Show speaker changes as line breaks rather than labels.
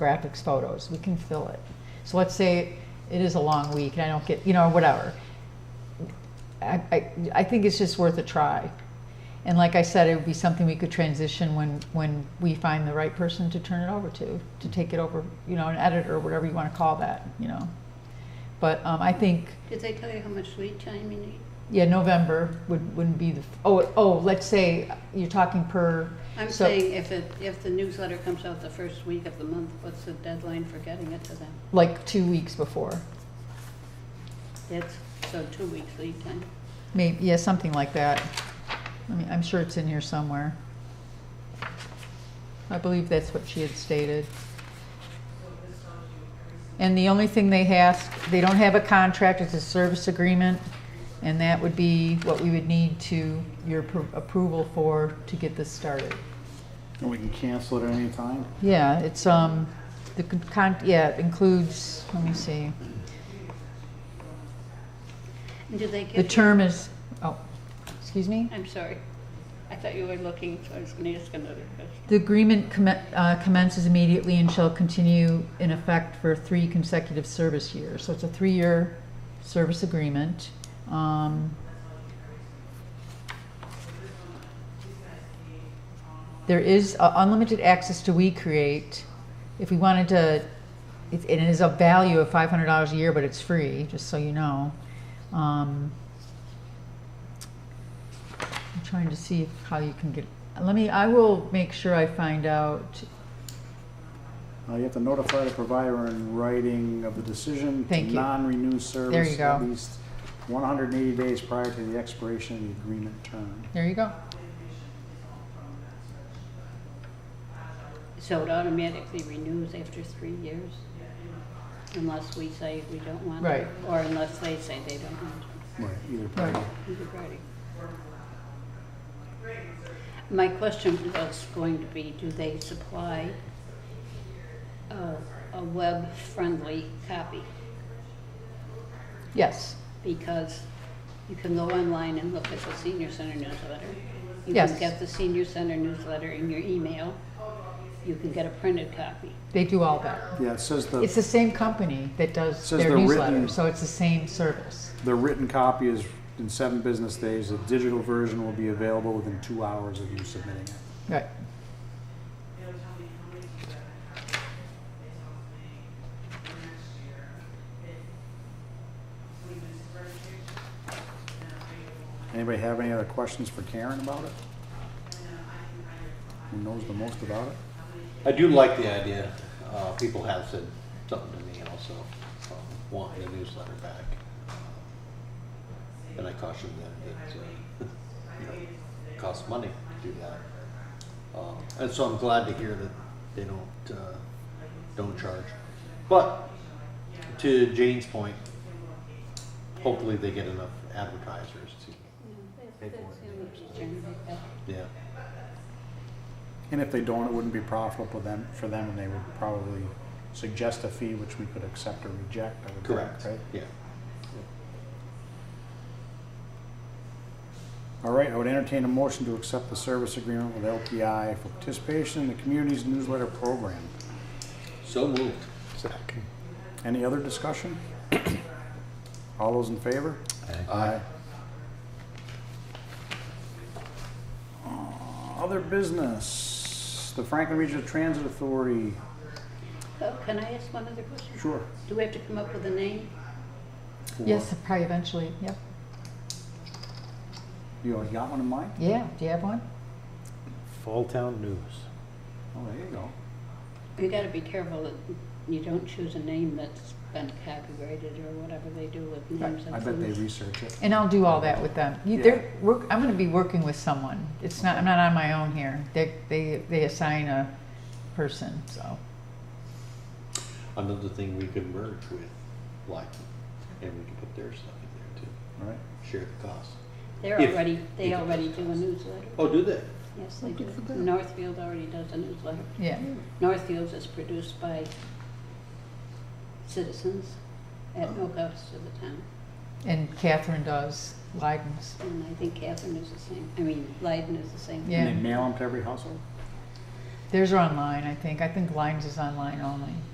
graphics, photos, we can fill it. So let's say it is a long week and I don't get, you know, whatever. I, I, I think it's just worth a try. And like I said, it would be something we could transition when, when we find the right person to turn it over to, to take it over, you know, an editor, whatever you want to call that, you know. But um, I think,
Did they tell you how much lead time you need?
yeah, November would, wouldn't be the, oh, oh, let's say you're talking per.
I'm
so-
saying if it, if the newsletter comes out the first week of the month, what's the deadline for getting it to them?
Like two weeks before.
It's, so two weeks lead time.
Maybe, yeah, something like that. I mean, I'm sure it's in here somewhere. I believe that's what she had stated. And the only thing they ask, they don't have a contract, it's a service agreement, and that would be what we would need to, your appro- approval for, to get this started.
And we can cancel it at any time?
Yeah, it's, um, the con- con, yeah, it includes, let me see,
And do they
the
give you?
term is, oh, excuse me?
I'm sorry. I thought you were looking, so I was gonna ask another question.
The agreement commen- uh, commences immediately and shall continue in effect for three consecutive service years. So it's a three-year service agreement. Um, There is uh, unlimited access to WeCreate. If we wanted to, it it is a value of $500 a year, but it's free, just so you know. Um, I'm trying to see if- how you can get, let me, I will make sure I find out.
Uh, you have to notify the provider in writing of the decision to
Thank you.
non-renew
you
service
go.
at least one hundred and eighty days prior to the expiration of the agreement term.
There you go.
So it automatically renews after three years? Unless we say we don't want it?
Right.
Or unless they say they don't want it?
Right. Either party.
Right.
Either party. My question was going to be, do they supply a, a web-friendly copy?
Yes,
Because you can go online and look at the senior center newsletter. You
Yes.
can get the senior center newsletter in your email. You can get a printed copy.
they do all that.
Yeah, it says
It's
the,
the same company that does
Says
their
they're
newsletter,
written-
so it's the same service.
the written copy is in seven business days. The digital version will be available within two hours of you submitting it.
Right.
Anybody have any other questions for Karen about it? Who knows the most about it?
I do like the idea. Uh, people have said something to me also, um, wanting a newsletter back. Uh, And I cautioned them that, uh, you know, it costs money to do that. Um, and so I'm glad to hear that they don't, uh, don't charge. But to Jane's point, hopefully they get enough advertisers to,
That's
Paperwork.
the only concern I have.
yeah.
And if they don't, it wouldn't be profitable them, for them, and they would probably suggest a fee which we could accept or reject, I would think, right?
Yeah.
All right, I would entertain a motion to accept the service agreement with LPI for participation in the community's newsletter program.
So moved.
Any other discussion? All those in favor? Aye. Other business, the Franklin Regional Transit Authority,
Oh, can I ask one other question?
sure.
Do we have to come up with a name?
Yes, probably eventually, yep.
You already got one in mind?
Yeah, do you have one?
Fall Town News.
Oh, there you go.
You gotta be careful that you don't choose a name that's been copyrighted or whatever they do with names
I
and
bet they
things.
research it.
And I'll do all that with them. You,
Yeah.
they're, work, I'm gonna be working with someone. It's not, I'm not on my own here. They, they, they assign a person, so.
Another thing we could merge with Lycan, and we could put their stuff in there too,
All right.
share the cost.
They're
If-
already, they
if-
already do a newsletter.
Oh, do they?
Yes, they do. Northfield already does a newsletter.
Yeah,
Northfield's is produced by citizens at no cost to the town.
and Catherine does Leiden's.
And I think Catherine is the same, I mean, Leiden is the same.
Yeah.
And they mail them to every household?
Theirs are online, I think. I think Lime's is online only.